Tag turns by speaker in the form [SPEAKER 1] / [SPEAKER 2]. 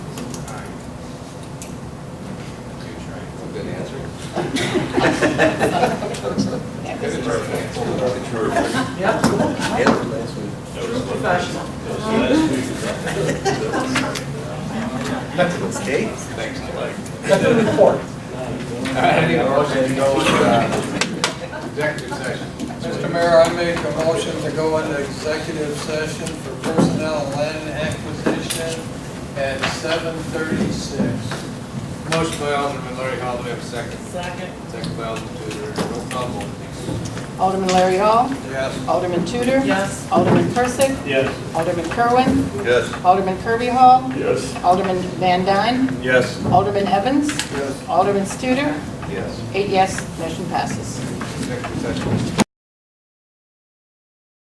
[SPEAKER 1] That
[SPEAKER 2] Good
[SPEAKER 1] was
[SPEAKER 2] at
[SPEAKER 1] easy.
[SPEAKER 2] first.
[SPEAKER 3] Yeah,
[SPEAKER 4] Those
[SPEAKER 3] professional.
[SPEAKER 4] last week was
[SPEAKER 2] Nothing was cake.
[SPEAKER 4] Thanks, Mike.
[SPEAKER 3] That's a report.
[SPEAKER 2] I need a motion to go into uh, executive session.
[SPEAKER 5] Mr. Mayor, I make a motion to go into executive session for personnel and land acquisition at seven thirty-six.
[SPEAKER 2] Motion by Alderman Larry Hall, do we have a second?
[SPEAKER 3] Second.
[SPEAKER 2] Second by Alderman Tudor, roll call vote, please.
[SPEAKER 1] Alderman Larry Hall.
[SPEAKER 5] Yes.
[SPEAKER 1] Alderman Tudor.
[SPEAKER 3] Yes.
[SPEAKER 1] Alderman Persick.
[SPEAKER 4] Yes.
[SPEAKER 1] Alderman Kerwin.
[SPEAKER 4] Yes.
[SPEAKER 1] Alderman Kirby Hall.
[SPEAKER 4] Yes.
[SPEAKER 1] Alderman Van Dyne.
[SPEAKER 4] Yes.
[SPEAKER 1] Alderman Evans.
[SPEAKER 5] Yes.
[SPEAKER 1] Alderman Studer.
[SPEAKER 2] Yes.
[SPEAKER 1] Eight yes, motion passes.
[SPEAKER 2] Executive session.